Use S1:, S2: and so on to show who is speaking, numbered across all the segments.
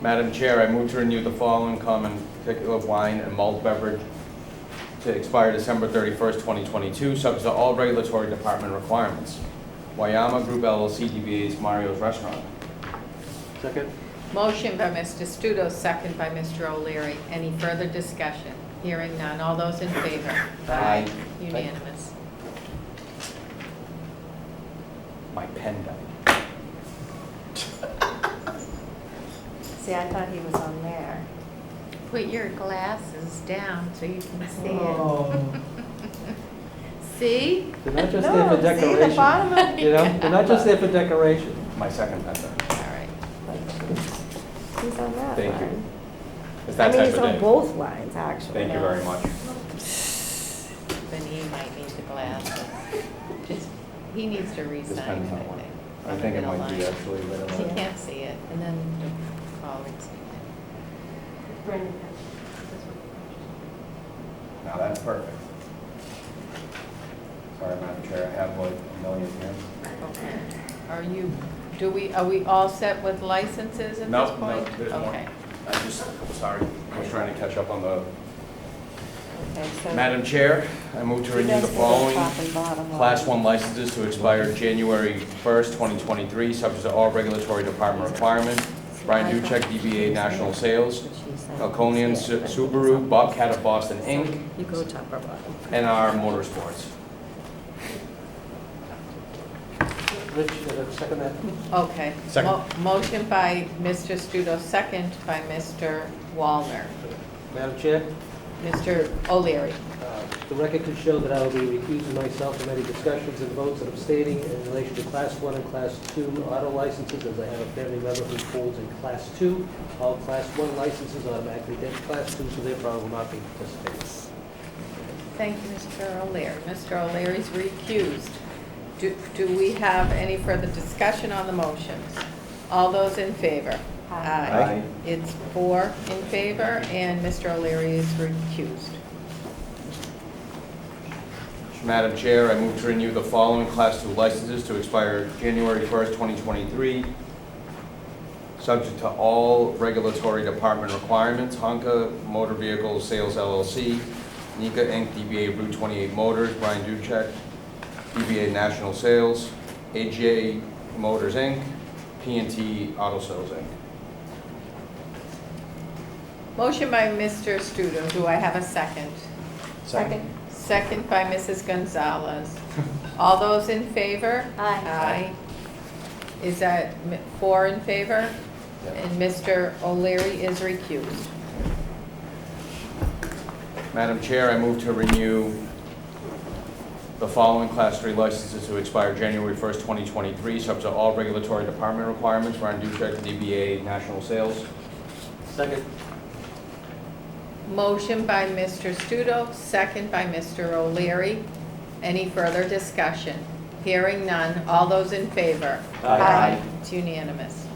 S1: Madam Chair, I move to renew the following common particular wine and malt beverage to expire December 31st, 2022, subject to all regulatory department requirements. Wayama Group LLC DBA's Mario's Restaurant.
S2: Second?
S3: Motion by Mr. Studo, second by Mr. O'Leary. Any further discussion? Hearing none. All those in favor?
S1: Aye.
S3: Unanimous.
S1: My pen died.
S4: See, I thought he was on there.
S3: Put your glasses down so you can see it.
S2: Oh,
S3: See?
S2: They're not just there for
S4: No, see the
S2: decoration,
S4: bottom of
S2: you know? They're not just there for decoration.
S1: My second pen died.
S3: All right.
S4: He's on that
S1: Thank you.
S4: line.
S1: It's
S4: I
S1: that
S4: mean,
S1: type
S4: he's on
S1: of day.
S4: both lines, actually.
S1: Thank you
S4: now.
S1: very much.
S3: Then he might need the glasses. Just, he needs to
S1: This
S3: re-sign
S1: pen's
S3: it,
S1: not
S3: I
S1: working.
S3: think.
S1: I think it
S3: Middle
S1: might be
S3: line.
S1: actually, but
S3: He
S1: I'm-
S3: can't see it, and then forward.
S1: now that's perfect. Sorry, Madam Chair, I have like a million here.
S3: Okay. Are you, do we, are we all set with licenses at
S1: No,
S3: this point?
S1: no, there's more.
S3: Okay.
S1: I just, sorry, I was trying to catch up on the.
S4: Okay, so
S1: Madam Chair, I move to
S4: you
S1: renew
S4: guys
S1: the
S4: can go
S1: following
S4: top and bottom
S1: Class 1
S4: line.
S1: licenses to expire January 1st, 2023, subject to all regulatory department requirements. Brian Duchek, DBA National Sales, Falconian Su- Subaru, Bobcat of Boston, Inc.,
S4: You go top or bottom.
S1: NR Motorsports.
S2: Rich, you gotta second that?
S3: Okay.
S1: Second.
S3: Mo- Motion by Mr. Studo, second by Mr. Wallner.
S2: Madam Chair,
S3: Mr. O'Leary.
S2: uh, the record can show that I will be recusing myself from any discussions and votes that I'm stating in relation to Class 1 and Class 2 auto licenses, as I have a family member who holds a Class 2. All Class 1 licenses automatically get Class 2, so therefore I will not be participating.
S3: Thank you, Mr. O'Leary. Mr. O'Leary's recused. Do do we have any further discussion on the motions? All those in favor?
S4: Aye.
S1: Aye.
S3: It's four in favor, and Mr. O'Leary is recused.
S1: Madam Chair, I move to renew the following Class 2 licenses to expire January 1st, 2023, subject to all regulatory department requirements. Honka Motor Vehicle Sales LLC, Nika Inc., DBA Route 28 Motors, Brian Duchek, DBA National Sales, AJ Motors Inc., p and T Auto Sales Inc.
S3: Motion by Mr. Studo. Do I have a second?
S4: Second.
S3: Second by Mrs. Gonzalez. All those in favor?
S4: Aye.
S3: Aye. Is that m- four in favor?
S1: Yeah.
S3: And Mr. O'Leary is recused.
S1: Madam Chair, I move to renew the following Class 3 licenses to expire January 1st, 2023, subject to all regulatory department requirements. Ryan Duchek, DBA National Sales.
S2: Second.
S3: Motion by Mr. Studo, second by Mr. O'Leary. Any further discussion? Hearing none. All those in favor?
S2: Aye.
S3: It's unanimous.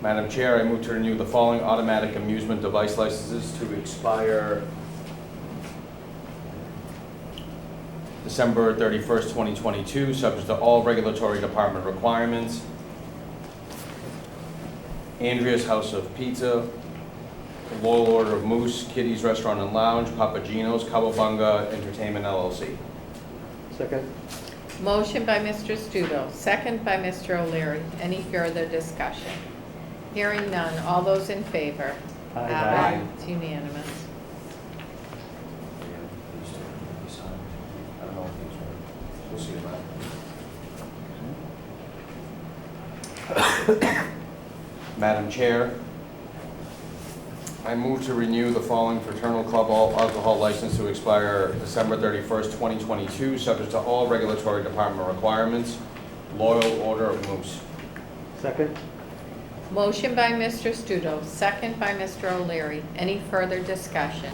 S1: Madam Chair, I move to renew the following automatic amusement device licenses to expire December 31st, 2022, subject to all regulatory department requirements. Andrea's House of Pizza, Loyal Order of Moose, Kitty's Restaurant and Lounge, Papagino's, Cowabunga Entertainment LLC.
S2: Second.
S3: Motion by Mr. Studo, second by Mr. O'Leary. Any further discussion? Hearing none. All those in favor?
S2: Aye.
S1: Aye.
S3: It's unanimous.
S1: I don't know if these are, we'll see about Madam Chair, I move to renew the following fraternal club all alcohol license to expire December 31st, 2022, subject to all regulatory department requirements. Loyal Order of Moose.
S2: Second.
S3: Motion by Mr. Studo, second by Mr. O'Leary. Any further discussion?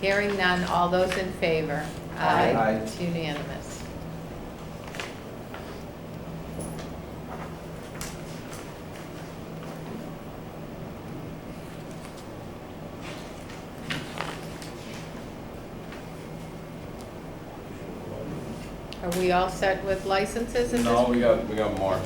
S3: Hearing none, all those in favor?
S1: Aye. Aye.
S3: It's unanimous.
S5: Are we all set with licenses at this
S3: No, we got, we got more.